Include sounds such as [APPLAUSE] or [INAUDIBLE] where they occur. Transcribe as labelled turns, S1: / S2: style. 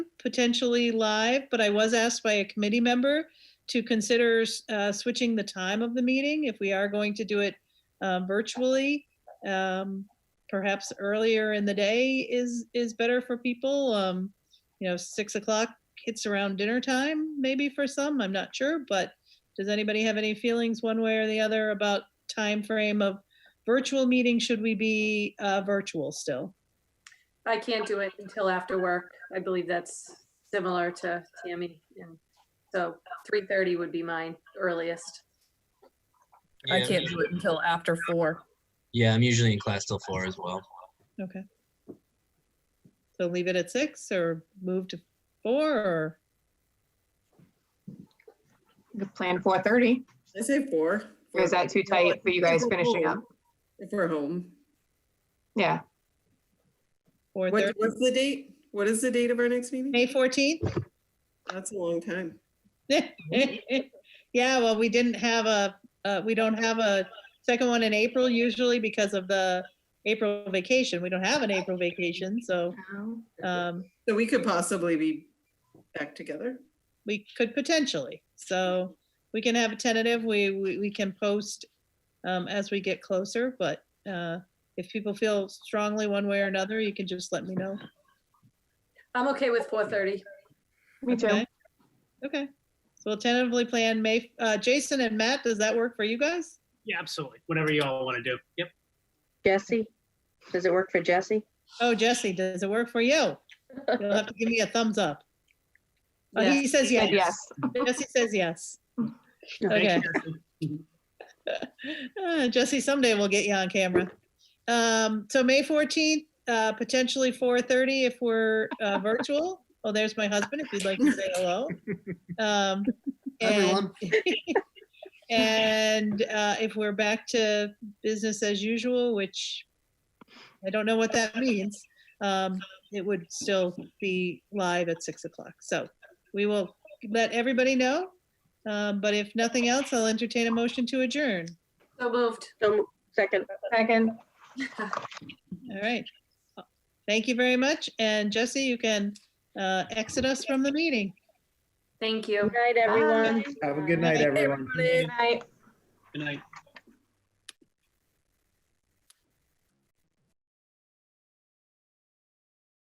S1: potentially live, but I was asked by a committee member to consider uh, switching the time of the meeting if we are going to do it uh, virtually. Um, Perhaps earlier in the day is, is better for people. Um, You know, 6 o'clock hits around dinner time, maybe for some, I'm not sure. But does anybody have any feelings one way or the other about time frame of virtual meeting? Should we be uh, virtual still?
S2: I can't do it until after work. I believe that's similar to Tammy. And so 3:30 would be mine earliest.
S3: I
S4: Yeah, I'm
S3: can't
S4: usu-
S3: do it until after four.
S4: Yeah, I'm usually in class till four as well.
S1: Okay. So leave it at six or move to four or,
S5: We could plan four thirty,
S6: I say four.
S5: or is that too tight for you guys finishing up?
S6: If we're home.
S5: Yeah,
S1: or
S6: What,
S1: thirty,
S6: what's the date? What is the date of our next meeting?
S1: May fourteenth? [LAUGHS]
S6: That's a long time.
S1: Yeah, well, we didn't have a, uh, we don't have a second one in April usually because of the April vacation. We don't have an April vacation, so, um,
S6: So we could possibly be back together.
S1: we could potentially. So we can have a tentative, we, we, we can post um, as we get closer, but uh, if people feel strongly one way or another, you can just let me know.
S2: I'm okay with 4:30.
S5: me too.
S1: Okay. Okay, so we'll tentatively plan May, uh, Jason and Matt, does that work for you guys?
S7: Yeah, absolutely. Whatever you all want to do. Yep.
S8: Jesse? Does it work for Jesse?
S1: Oh, Jesse, does it work for you? You'll have to give me a thumbs up. Oh,
S2: Yeah.
S1: He says
S5: Said
S1: yes.
S5: yes.
S1: Jesse says yes.
S7: Thank
S1: Okay.
S7: you, Jesse.
S1: Uh, Jesse, someday we'll get you on camera. Um, so May fourteenth, uh, potentially four thirty if we're, uh, virtual. Oh, there's my husband, if you'd like to say hello. Um, and, [LAUGHS] and, uh, if we're back to business as usual, which I don't know what that means, um, it would still be live at six o'clock. So we will let everybody know. Um, but if nothing else, I'll entertain a motion to adjourn.
S2: So moved.
S8: So, second.
S5: Second,
S1: All right. Thank you very much. And Jesse, you can uh, exit us from the meeting.
S2: Thank you.
S8: Good night, everyone.
S9: Have a good night, everyone.
S5: good night.
S7: Good night.